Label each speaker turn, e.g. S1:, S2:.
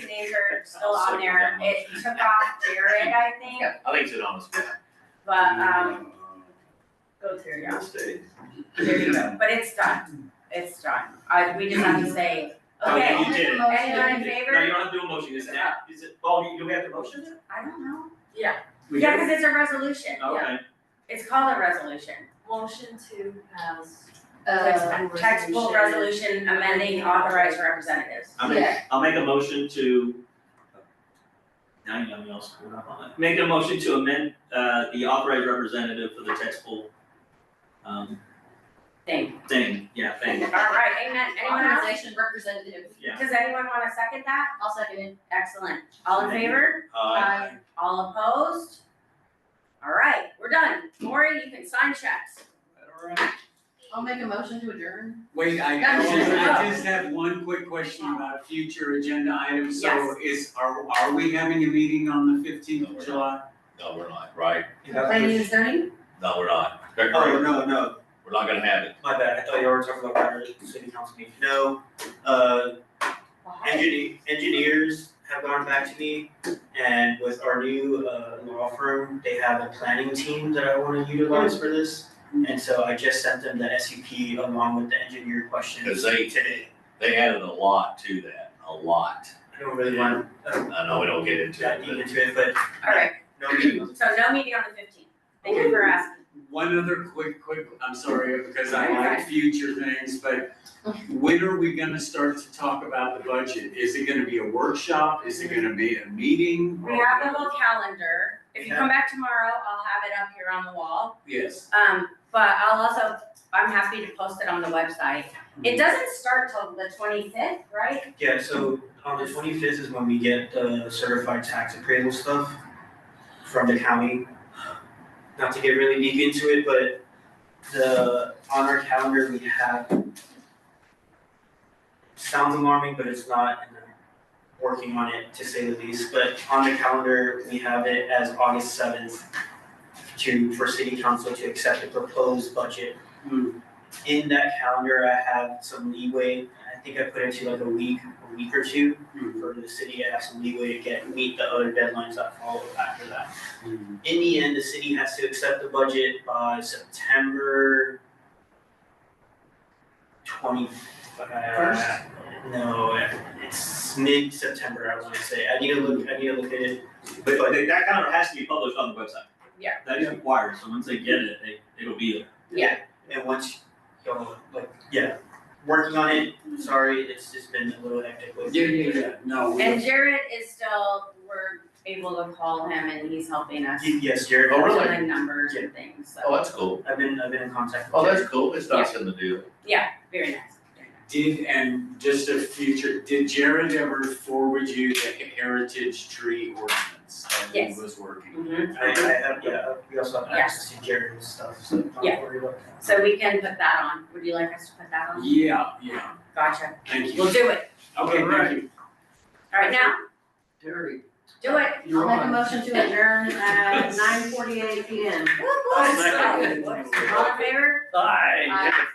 S1: acre still on there, it took off Jared, I think,
S2: I think it's an honest one.
S1: but, um, go through, yeah, there you go, but it's done, it's done, I, we just have to say,
S2: Oh, you-
S1: okay,
S2: you did it.
S1: anyone in
S2: No, you
S1: favor?
S2: don't have to do a motion, is that, is it, oh, you, do we have to motion it?
S1: I don't know,
S2: We Oh.
S1: yeah,
S2: do.
S1: cause it's a resolution,
S2: Okay,
S1: it's called a resolution,
S3: Motion to pass. uh,
S1: Text- textbook resolution amending authorized representatives.
S2: I'll make, I'll make a motion to. Now you know me all screwed up on it. Make a motion to amend, uh, the authorized representative for the text pool. Um,
S1: Thing,
S2: thing, yeah, thing,
S1: alright, amen, anyone else?
S3: Authorization representative.
S2: yeah.
S1: Does anyone wanna second that?
S3: I'll second it.
S1: Excellent, all in
S2: Thank you.
S1: favor?
S2: Uh,
S1: All opposed? Alright, we're done, Maury, you can sign checks.
S4: Alright,
S3: I'll make a motion to adjourn.
S4: wait, I
S1: That's
S4: just, I
S1: it.
S4: just have one quick question about future agenda items, so
S1: Yes.
S4: is, are, are we having a meeting on the fifteenth
S5: No, we're not.
S4: of July?
S5: No, we're not, right?
S3: Planning and zoning?
S5: No, we're not. Correct,
S4: Oh,
S5: right?
S4: no, no,
S5: We're not gonna have it.
S2: my bad, I thought you were talking about our city council meeting. No, uh, Engineer, engineers have gone back to me, and with our new uh law firm, they have a planning team that I wanna utilize for this. And so I just sent them the SUP along with the engineer
S5: Cause
S2: questions
S5: they,
S2: today.
S5: they added a lot to that, a lot.
S2: I don't really want uh
S5: I know we don't get into
S2: that
S5: it,
S2: deep
S5: but
S2: into it, but
S1: Alright,
S2: no meeting.
S1: so no meeting on the fifteenth, thank you for asking.
S4: one other quick, quick, I'm sorry, because I
S1: You're
S4: like future things, but when are we gonna start to talk about the budget? Is it gonna be a workshop, is it gonna be a meeting?
S1: We have the whole calendar, if you come back tomorrow, I'll have it up here on the wall.
S4: Yes,
S1: Um, but I'll also, I'm happy to post it on the website. It doesn't start till the twenty-fifth, right?
S6: Yeah, so on the twenty fifth is when we get the certified tax appraisal stuff from the county. Not to get really deep into it, but the, on our calendar, we have. Sounds alarming, but it's not, and I'm working on it to say the least, but on the calendar, we have it as August seventh. To, for city council to accept the proposed budget.
S4: Hmm.
S6: In that calendar, I have some leeway, I think I put it to like a week, a week or two
S5: Mm-hmm.
S6: for the city to have some leeway to get, meet the other deadlines that follow after that.
S4: Mhm.
S6: In the end, the city has to accept the budget by September twenty, uh,
S4: First?
S6: No, it's mid-September, I wanna say, I need to look, I need to look at it,
S2: But but that that kind of has to be published on the website.
S1: Yeah.
S2: That is required, so once they get it, they it'll be there.
S6: and once, you know, like, yeah, working on it, sorry, it's just been a little hectic with.
S4: yeah, yeah, yeah, no, we-
S1: And Jared is still, we're able to call him and he's helping us.
S6: Y- Yes, Jared,
S5: Oh, really?
S1: fill in numbers and things,
S5: Oh,
S1: so,
S5: that's cool.
S6: I've been, I've been in contact with
S5: Oh,
S6: him.
S5: that's cool. It's nice in the deal.
S1: yeah, very nice. very nice.
S4: Did, and just a future, did Jared ever forward you the heritage tree ordinance that he
S1: Yes.
S4: was working? on?
S1: Mhm.
S6: I, I have, yeah, we also have
S1: Yeah.
S6: access to Jared's stuff, so don't
S1: Yeah.
S6: worry about that.
S1: So we can put that on, would you like us to put that on?
S4: Yeah, yeah,
S1: Gotcha,
S4: thank you.
S1: we'll do it,
S4: Okay, thank you.
S1: alright now,
S4: Terry,
S1: do it.
S3: I'll make a motion to adjourn at nine forty-eight P M.
S1: Woo, woo.
S4: I second it.
S1: All in favor?
S2: Bye.
S3: Aye.